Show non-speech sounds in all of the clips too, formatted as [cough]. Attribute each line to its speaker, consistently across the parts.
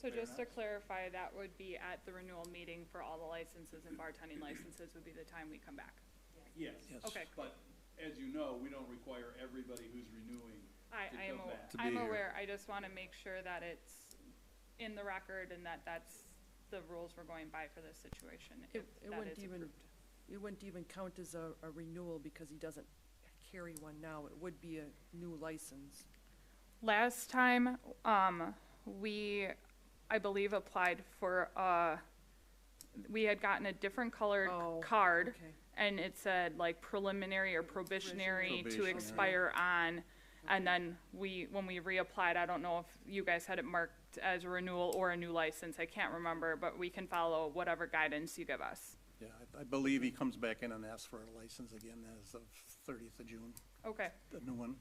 Speaker 1: So
Speaker 2: Fair
Speaker 1: just to
Speaker 2: enough.
Speaker 1: clarify, that would be at the renewal meeting for all the licenses and bartending licenses would be the time we come back.
Speaker 2: Yes.
Speaker 3: Yes.
Speaker 1: Okay,
Speaker 2: But as you know, we don't require everybody who's renewing. To
Speaker 1: I, I am,
Speaker 2: come
Speaker 1: aw-
Speaker 2: back.
Speaker 4: To be
Speaker 1: I'm
Speaker 4: here.
Speaker 1: aware, I just wanna make sure that it's in the record and that that's the rules we're going by for this situation.
Speaker 3: It,
Speaker 1: if
Speaker 3: it
Speaker 1: that
Speaker 3: wouldn't
Speaker 1: is
Speaker 3: even,
Speaker 1: approved.
Speaker 3: it wouldn't even count as a, a renewal because he doesn't carry one now. It would be a new license.
Speaker 1: Last time, um, we, I believe, applied for, uh, we had gotten a different colored
Speaker 3: Oh,
Speaker 1: card.
Speaker 3: Okay.
Speaker 1: And it said like preliminary or probationary to
Speaker 4: Probationary.
Speaker 1: expire on. And then we, when we reapplied, I don't know if you guys had it marked as a renewal or a new license, I can't remember, but we can follow whatever guidance you give us.
Speaker 5: Yeah, I- I believe he comes back in and asks for a license again as of thirtieth of June,
Speaker 1: Okay,
Speaker 5: the new one.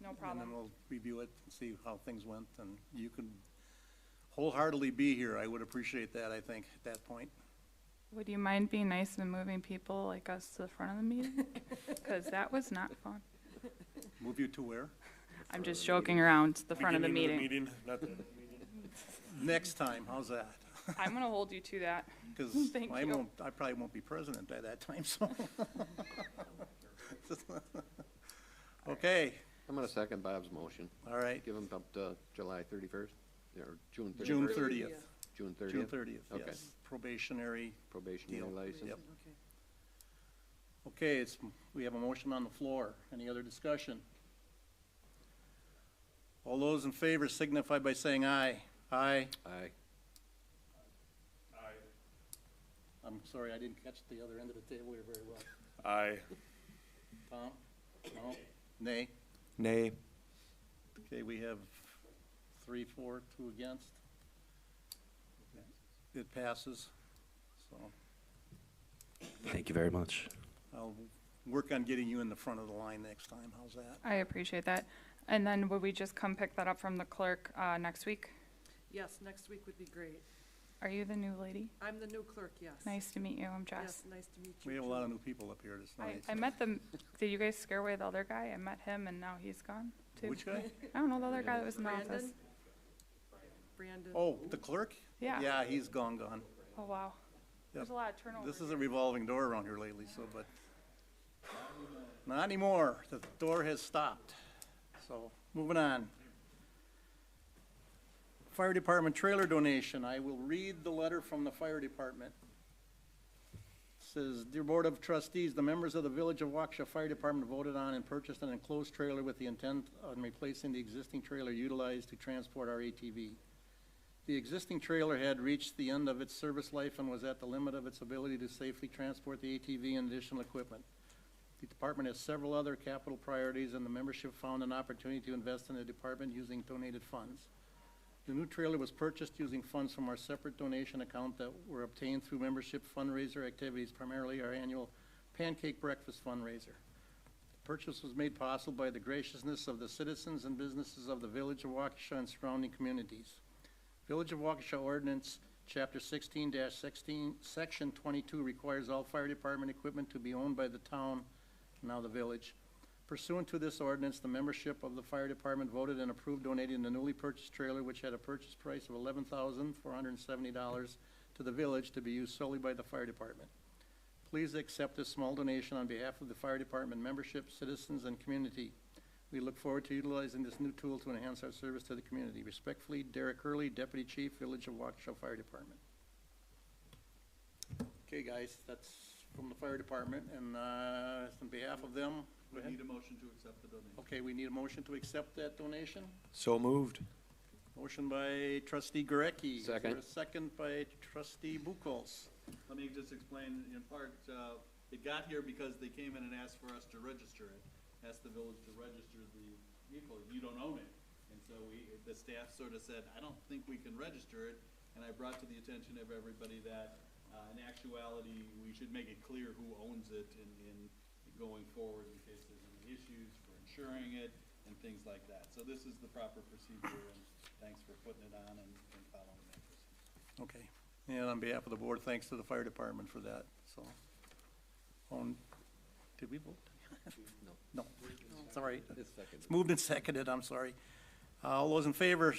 Speaker 1: no
Speaker 5: And then
Speaker 1: problem.
Speaker 5: we'll review it and see how things went, and you can wholeheartedly be here. I would appreciate that, I think, at that point.
Speaker 1: Would you mind being nice and moving people like us to the front of the meeting?
Speaker 3: [laughs]
Speaker 1: Cause that was not fun.
Speaker 5: Move you to where?
Speaker 1: I'm just joking around, the front of the
Speaker 4: Beginning
Speaker 1: meeting.
Speaker 4: Not the,
Speaker 5: [laughs] Next time,
Speaker 1: [laughs]
Speaker 5: how's that?
Speaker 1: I'm gonna hold you to that.
Speaker 5: Because
Speaker 1: Thank
Speaker 5: I
Speaker 1: you.
Speaker 5: won't, I probably won't be president by that time, so. [laughs] Okay,
Speaker 6: I'm gonna second Bob's motion.
Speaker 5: all right,
Speaker 6: Give him up to July thirty-first, or June thirty-first?
Speaker 5: June thirtieth,
Speaker 6: June
Speaker 5: June
Speaker 6: thirtieth?
Speaker 5: thirtieth,
Speaker 6: Okay.
Speaker 5: yes, probationary.
Speaker 6: Probationary
Speaker 5: Deal.
Speaker 6: license.
Speaker 5: Yep.
Speaker 3: Okay.
Speaker 5: Okay, it's, we have a motion on the floor. Any other discussion? All those in favor signify by saying aye. Aye.
Speaker 6: Aye.
Speaker 5: I'm sorry, I didn't catch the other end of the table here very well.
Speaker 4: aye.
Speaker 5: Tom? No? Nay?
Speaker 4: Nay.
Speaker 5: Okay, we have three, four, two against. It passes, so
Speaker 7: Thank you very much.
Speaker 5: I'll work on getting you in the front of the line next time. How's that?
Speaker 1: I appreciate that. And then would we just come pick that up from the clerk, uh, next week?
Speaker 3: Yes, next week would be great.
Speaker 1: Are you the new lady?
Speaker 3: I'm the new clerk, yes.
Speaker 1: Nice to meet you, I'm Jess.
Speaker 3: Yes, nice to meet you.
Speaker 5: We have a lot of
Speaker 3: too.
Speaker 5: new people up here this
Speaker 1: I,
Speaker 5: night.
Speaker 1: I met the, did you guys scare away the other guy? I met him and now he's gone too.
Speaker 5: Which guy?
Speaker 1: I don't know, the other guy that was in the office.
Speaker 3: Brandon? Brandon.
Speaker 5: Oh, the clerk?
Speaker 1: Yeah.
Speaker 5: Yeah, he's gone, gone.
Speaker 1: Oh, wow. There's a lot of turnover.
Speaker 5: This is a revolving door around here lately, so, but, not anymore. The door has stopped. So, moving on. Fire Department trailer donation. I will read the letter from the fire department. Says, Dear Board of Trustees, the members of the Village of Waukesha Fire Department voted on and purchased an enclosed trailer with the intent on replacing the existing trailer utilized to transport our ATV. The existing trailer had reached the end of its service life and was at the limit of its ability to safely transport the ATV and additional equipment. The department has several other capital priorities, and the membership found an opportunity to invest in the department using donated funds. The new trailer was purchased using funds from our separate donation account that were obtained through membership fundraiser activities, primarily our annual pancake breakfast fundraiser. The Purchase was made possible by the graciousness of the citizens and businesses of the village of Waukesha and surrounding communities. Village of Waukesha ordinance, chapter sixteen sixteen, section twenty-two requires all fire department equipment to be owned by the town, now the village. Pursuant to this ordinance, the membership of the fire department voted and approved donating the newly purchased trailer, which had a purchase price of eleven thousand four hundred and seventy dollars to the village to be used solely by the fire department. Please accept this small donation on behalf of the fire department membership, citizens, and community. We look forward to utilizing this new tool to enhance our service to the community. Respectfully, Derek Hurley, Deputy Chief, Village of Waukesha Fire Department. Okay, guys, that's from the fire department, and, uh, on behalf of them,
Speaker 2: We need a motion to accept the donation.
Speaker 5: okay, we need a motion to accept that donation.
Speaker 4: So moved.
Speaker 5: Motion by trustee Gurecki. Is there a
Speaker 6: Second.
Speaker 5: Second by trustee Buchholz.
Speaker 2: Let me just explain in part, uh, it got here because they came in and asked for us to register it. Asked the village to register the vehicle, you don't own it. And so we, the staff sort of said, I don't think we can register it. And I brought to the attention of everybody that, uh, in actuality, we should make it clear who owns it in, in going forward in case there's any issues for insuring it and things like that. So this is the proper procedure and thanks for putting it on and and following that procedure.
Speaker 5: Okay, and on behalf of the board, thanks to the fire department for that, so. On, did we vote? No. No, it's all right. It's moved and seconded, I'm sorry. Uh, All those in favor